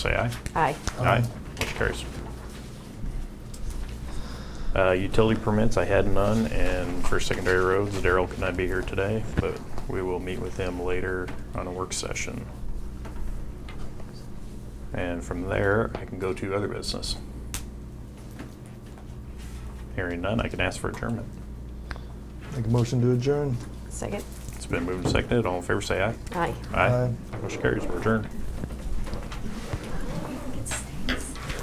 Say aye. Aye. Aye. Motion carries. Uh, Utility permits, I had none, and for secondary roads, Daryl could not be here today, but we will meet with him later on a work session. And from there, I can go to other business. Hearing none, I can ask for adjournment. Make a motion to adjourn. Second? It's been moved and seconded. All in favor, say aye. Aye. Aye. Aye. Motion carries. We're adjourned.